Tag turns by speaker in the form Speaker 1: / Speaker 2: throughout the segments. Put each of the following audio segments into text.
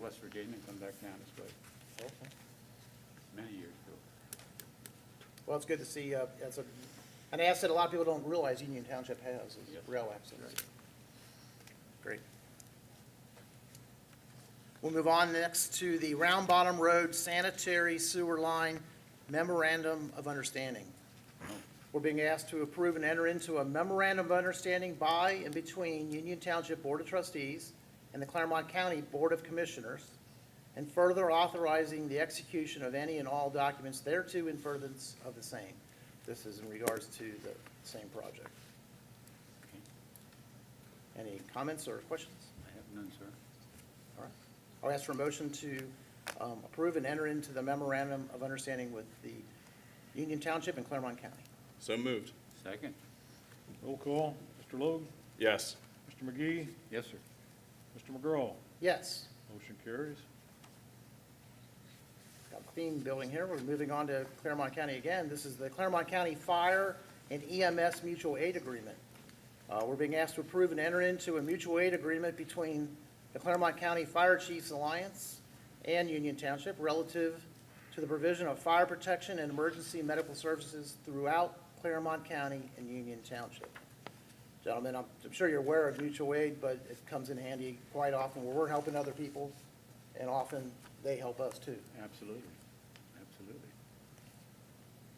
Speaker 1: West Virginia and come back down this way,
Speaker 2: Okay.
Speaker 1: many years ago.
Speaker 2: Well, it's good to see, uh, that's a, an asset a lot of people don't realize Union Township has, is
Speaker 1: Yep.
Speaker 2: rail access. Great. We'll move on next to the Round Bottom Road Sanitary Sewer Line Memorandum of Understanding. We're being asked to approve and enter into a memorandum of understanding by and between Union Township Board of Trustees and the Claremont County Board of Commissioners, and further authorizing the execution of any and all documents thereto in furtherance of the same. This is in regards to the same project.
Speaker 1: Okay.
Speaker 2: Any comments or questions?
Speaker 1: I have none, sir.
Speaker 2: All right. I'll ask for a motion to um, approve and enter into the memorandum of understanding with the Union Township and Claremont County.
Speaker 3: So moved.
Speaker 1: Second?
Speaker 4: Roll call, Mr. Logue,
Speaker 3: Yes.
Speaker 4: Mr. McGee,
Speaker 1: Yes, sir.
Speaker 4: Mr. McGraw.
Speaker 2: Yes,
Speaker 4: Motion carries.
Speaker 2: got a theme building here. We're moving on to Claremont County again. This is the Claremont County Fire and EMS Mutual Aid Agreement. Uh, We're being asked to approve and enter into a mutual aid agreement between the Claremont County Fire Chiefs Alliance and Union Township relative to the provision of fire protection and emergency medical services throughout Claremont County and Union Township. Gentlemen, I'm I'm sure you're aware of mutual aid, but it comes in handy quite often where we're helping other people, and often they help us too.
Speaker 1: Absolutely, absolutely.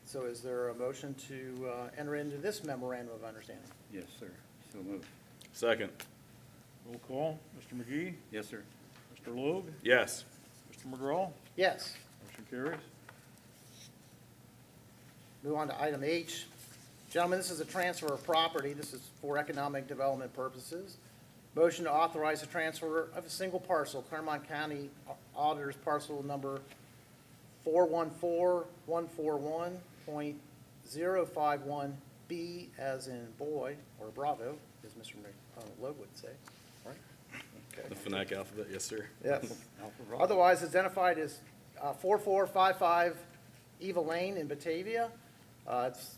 Speaker 2: So is there a motion to uh, enter into this memorandum of understanding?
Speaker 1: Yes, sir. So moved.
Speaker 3: Second.
Speaker 4: Roll call, Mr. McGee,
Speaker 1: Yes, sir.
Speaker 4: Mr. Logue,
Speaker 3: Yes.
Speaker 4: Mr. McGraw.
Speaker 2: Yes.
Speaker 4: Motion carries.
Speaker 2: Move on to item H. Gentlemen, this is a transfer of property. This is for economic development purposes. Motion to authorize the transfer of a single parcel, Claremont County Auditor's Parcel Number 414141.051B, as in boy, or Bravo, as Mr. Logue would say.
Speaker 3: The phonetic alphabet, yes, sir.
Speaker 2: Yes.
Speaker 1: Alpha Bravo.
Speaker 2: Otherwise identified as uh, 4455 Eva Lane in Batavia. Uh, It's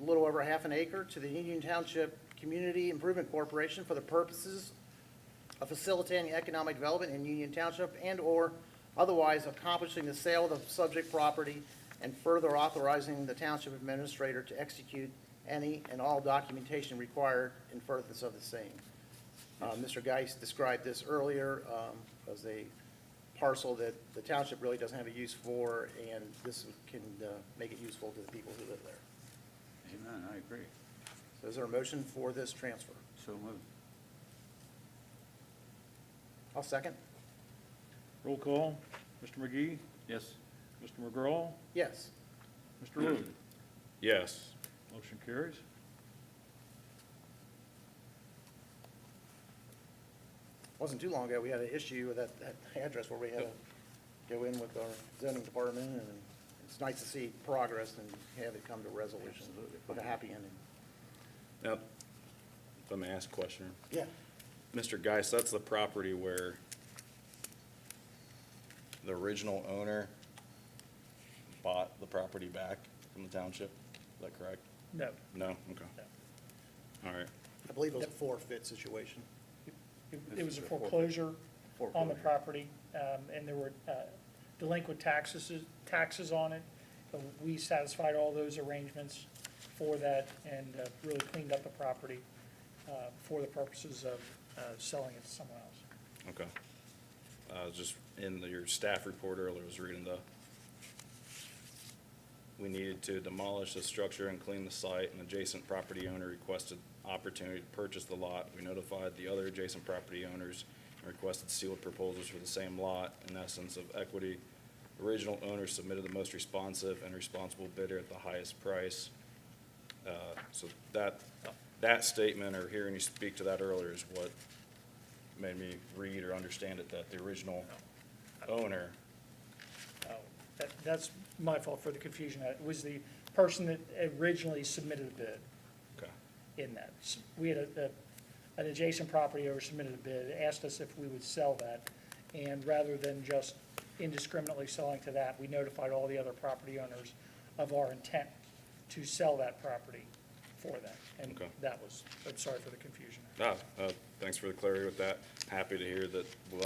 Speaker 2: a little over half an acre to the Union Township Community Improvement Corporation for the purposes of facilitating economic development in Union Township and/or otherwise accomplishing the sale of the subject property and further authorizing the township administrator to execute any and all documentation required in furtherance of the same. Uh, Mr. Geis described this earlier um, as a parcel that the township really doesn't have a use for, and this can uh, make it useful to the people who live there.
Speaker 1: Amen, I agree.
Speaker 2: So is there a motion for this transfer?
Speaker 1: So moved.
Speaker 2: I'll second.
Speaker 4: Roll call, Mr. McGee,
Speaker 1: Yes,
Speaker 4: Mr. McGraw,
Speaker 2: Yes.
Speaker 4: Mr. Logue.
Speaker 3: Yes.
Speaker 4: Motion carries.
Speaker 2: Wasn't too long ago, we had an issue with that, that address where we had to go in with our zoning department, and it's nice to see progress and have it come to resolution
Speaker 1: Absolutely.
Speaker 2: with a happy ending.
Speaker 3: Now, if I may ask a question,
Speaker 2: Yeah.
Speaker 3: Mr. Geis, that's the property where the original owner bought the property back from the township? Is that correct?
Speaker 4: No.
Speaker 3: No? Okay. All right.
Speaker 2: I believe it was a forfeit situation.
Speaker 5: It-
Speaker 1: This
Speaker 5: It was
Speaker 1: is
Speaker 5: a
Speaker 1: a forfeit.
Speaker 5: foreclosure on the
Speaker 1: Foreclosure.
Speaker 5: property, um, and there were uh, delinquent taxes, taxes on it. But We satisfied all those arrangements for that and uh, really cleaned up the property uh, for the purposes of uh, selling it to someone else.
Speaker 3: Okay. I was just, in the- your staff report earlier, I was reading the, we needed to demolish the structure and clean the site, and adjacent property owner requested opportunity to purchase the lot. We notified the other adjacent property owners and requested sealed proposals for the same lot, in essence of equity. Original owner submitted the most responsive and responsible bidder at the highest price. Uh, So that, that statement, or hearing you speak to that earlier, is what made me read or understand it that the original owner,
Speaker 5: Oh, that- That's my fault for the confusion. It was the person that originally submitted a bid.
Speaker 3: okay,
Speaker 5: in that. S- We had a, a- an adjacent property owner submitted a bid, asked us if we would sell that, and rather than just indiscriminately selling to that, we notified all the other property owners of our intent to sell that property for them. And
Speaker 3: Okay.
Speaker 5: that was, I'm sorry for the confusion.
Speaker 3: ah, uh, thanks for the clarity with that. Happy to hear that we'll